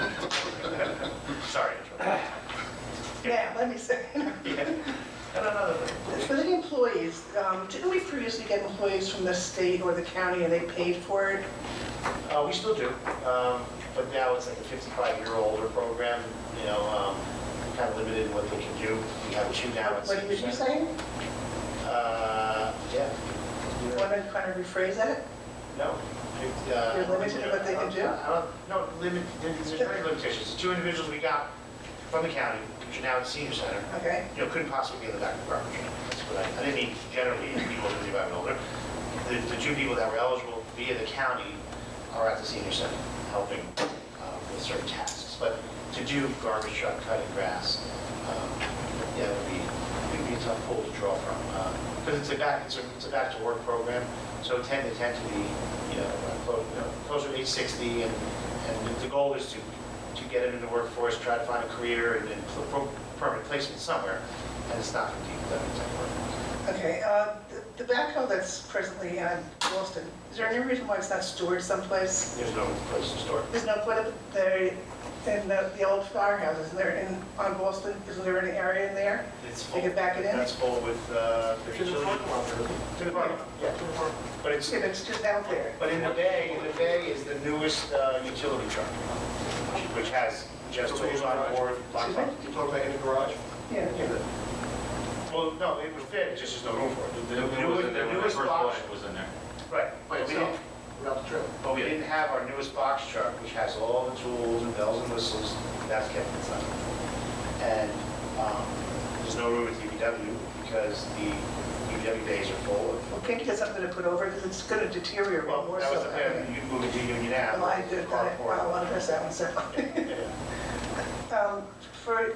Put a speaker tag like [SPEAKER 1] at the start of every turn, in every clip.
[SPEAKER 1] Yeah, let me say,
[SPEAKER 2] And another thing,
[SPEAKER 1] for the employees, um, didn't we previously get employees from the state or the county and they paid for it?
[SPEAKER 2] Uh, we still do, um, but now it's like a 55-year-older program, you know, um, kind of limited in what they can do. We have two now at
[SPEAKER 1] What
[SPEAKER 2] senior
[SPEAKER 1] did you
[SPEAKER 2] center.
[SPEAKER 1] say?
[SPEAKER 2] Uh, yeah. You're-
[SPEAKER 1] Want to kind of rephrase that?
[SPEAKER 2] No. It, uh,
[SPEAKER 1] You're limited in what they can do?
[SPEAKER 2] I don't- No, limit, there's very limitations. Two individuals we got from the county, which are now at senior center,
[SPEAKER 1] Okay.
[SPEAKER 2] you know, couldn't possibly be in the back of the garbage. That's what I, I didn't mean generally people 55 and older. The, the two people that were eligible via the county are at the senior center, helping uh, with certain tasks. But to do garbage truck, cutting grass, um, yeah, it would be, it would be a tough pool to draw from. Because it's a back, it's a, it's a back-to-work program, so 10 to 10 to be, you know, uh, clo- you know, closer to 860. And, and the- the goal is to to get into the workforce, try to find a career and and pl- pro- permanent placement somewhere, and it's not going to be that exact work.
[SPEAKER 1] Okay, uh, the the backhoe that's presently at Boston, is there any reason why it's not stored someplace?
[SPEAKER 2] There's no place to store. it.
[SPEAKER 1] There's no put up there in the the old firehouse, isn't there, in, on Boston, isn't there any area in there?
[SPEAKER 2] It's full.
[SPEAKER 1] They could back it in?
[SPEAKER 2] That's full with, uh, the
[SPEAKER 3] To the
[SPEAKER 2] children.
[SPEAKER 3] parking lot, really.
[SPEAKER 2] To the park, yeah. But it's,
[SPEAKER 1] Yeah, but it's just out there.
[SPEAKER 2] but in the bay, the bay is the newest uh, utility truck, which- which has just tools on board. lock-
[SPEAKER 1] Excuse me?
[SPEAKER 3] You talking about in the garage?
[SPEAKER 1] Yeah.
[SPEAKER 2] Well, no, it was fit, it's just there's no room for it.
[SPEAKER 4] It wasn't there when I
[SPEAKER 2] newest
[SPEAKER 4] first bought
[SPEAKER 2] box-
[SPEAKER 4] it, it was in there.
[SPEAKER 2] Right, Oh,
[SPEAKER 3] By
[SPEAKER 2] but we didn't,
[SPEAKER 3] itself, without the trailer.
[SPEAKER 2] But we didn't have our newest box truck, which has all the tools and bells and whistles, that's kept inside. And um, there's no room at DPW because the DPW days are full. of-
[SPEAKER 1] Well, can't you get something to put over, because it's going to deteriorate
[SPEAKER 2] Well,
[SPEAKER 1] more so.
[SPEAKER 2] that was the
[SPEAKER 1] I mean.
[SPEAKER 2] plan, you move it to Union Ave.
[SPEAKER 1] Well, I did, I,
[SPEAKER 2] carport.
[SPEAKER 1] I'll address that one separately.
[SPEAKER 2] Yeah, yeah.
[SPEAKER 1] Um, For,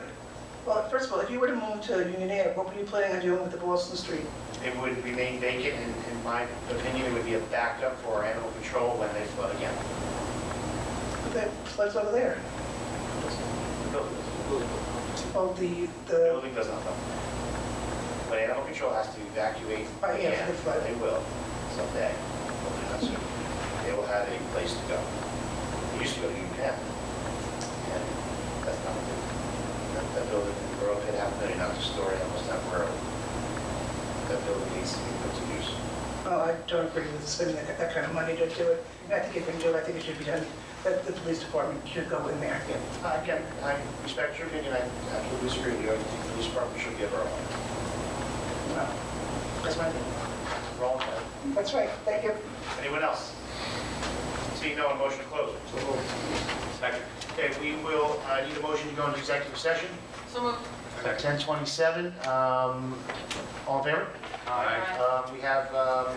[SPEAKER 1] well, first of all, if you were to move to Union Air, what were you planning on doing with the Boston Street?
[SPEAKER 2] It would remain vacant, and in my opinion, it would be a backup for our animal control when they flood again.
[SPEAKER 1] The floods over there,
[SPEAKER 2] The building-
[SPEAKER 1] well, the,
[SPEAKER 2] the
[SPEAKER 1] the,
[SPEAKER 2] building does not flood. When animal control has to evacuate,
[SPEAKER 1] Oh, yeah,
[SPEAKER 2] again,
[SPEAKER 1] for the flood.
[SPEAKER 2] they will someday. Hopefully not soon. They will have a place to go. They used to go to UPenn, and that's not what they, that- that building, the borough had half a million dollars to store animals temporarily. That building needs to be put to use.
[SPEAKER 1] oh, I don't agree with spending that, that kind of money to do it. And I think if you can do it, I think it should be done, that the police department should go in there.
[SPEAKER 2] Again, I- Uh, Again, I respect your opinion, I absolutely disagree with you, I think the police department should give our own.
[SPEAKER 1] Well,
[SPEAKER 2] That's my opinion. Wrong, but-
[SPEAKER 1] That's right, thank you.
[SPEAKER 2] anyone else? Seeing no one, motion to close.
[SPEAKER 3] So, oh,
[SPEAKER 4] Second.
[SPEAKER 2] Okay, we will, I need a motion to go into executive session.
[SPEAKER 5] So moved.
[SPEAKER 2] At 10:27, um, all in favor?
[SPEAKER 4] Aye.
[SPEAKER 2] Um, We have um,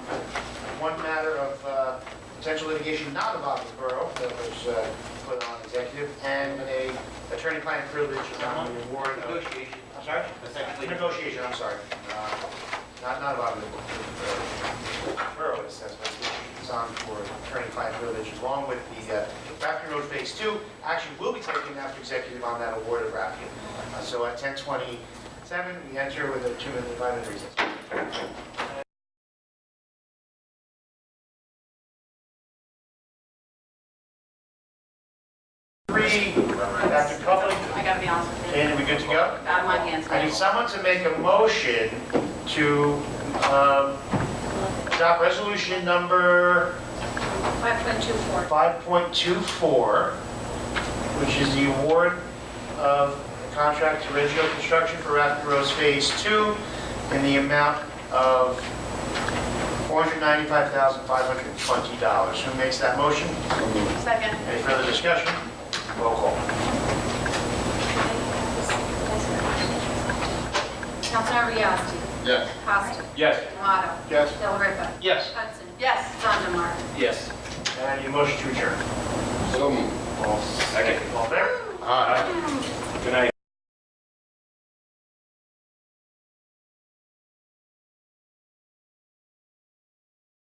[SPEAKER 2] one matter of uh, potential litigation not involving the borough that was uh, put on executive, and a attorney-client privilege on the award of...
[SPEAKER 4] Negotiation.
[SPEAKER 2] I'm sorry?
[SPEAKER 4] Essentially.
[SPEAKER 2] Negotiation, I'm sorry. Uh, Not, not about the the borough, it's, that's what it's on for attorney-client privilege, along with the uh, Rafkin Road Phase Two. Action will be taken after executive on that award of Rafkin. Uh, So at 10:27, we enter with a two-minute, five-minute recess. Three, Dr. Copeland,
[SPEAKER 5] I gotta be honest with you.
[SPEAKER 2] and we good to go?
[SPEAKER 5] Out of my hands.
[SPEAKER 2] I need someone to make a motion to um, adopt resolution number
[SPEAKER 5] 5.24.
[SPEAKER 2] 5.24, which is the award of a contract to Reggio Construction for Rapid Rose Phase 2 in the amount of $495,520. Who makes that motion?
[SPEAKER 5] Second.
[SPEAKER 2] Any further discussion? Roll call.
[SPEAKER 5] Councilmember Yasi.
[SPEAKER 3] Yes.
[SPEAKER 5] Costa.
[SPEAKER 4] Yes.
[SPEAKER 5] Tomato.
[SPEAKER 3] Yes.
[SPEAKER 5] Del Ripa.
[SPEAKER 2] Yes.
[SPEAKER 5] Hudson. Yes. Sandemeyer.
[SPEAKER 4] Yes.
[SPEAKER 2] And I need a motion to adjourn.
[SPEAKER 3] So moved.
[SPEAKER 4] Second.
[SPEAKER 2] All in favor?
[SPEAKER 3] Aye.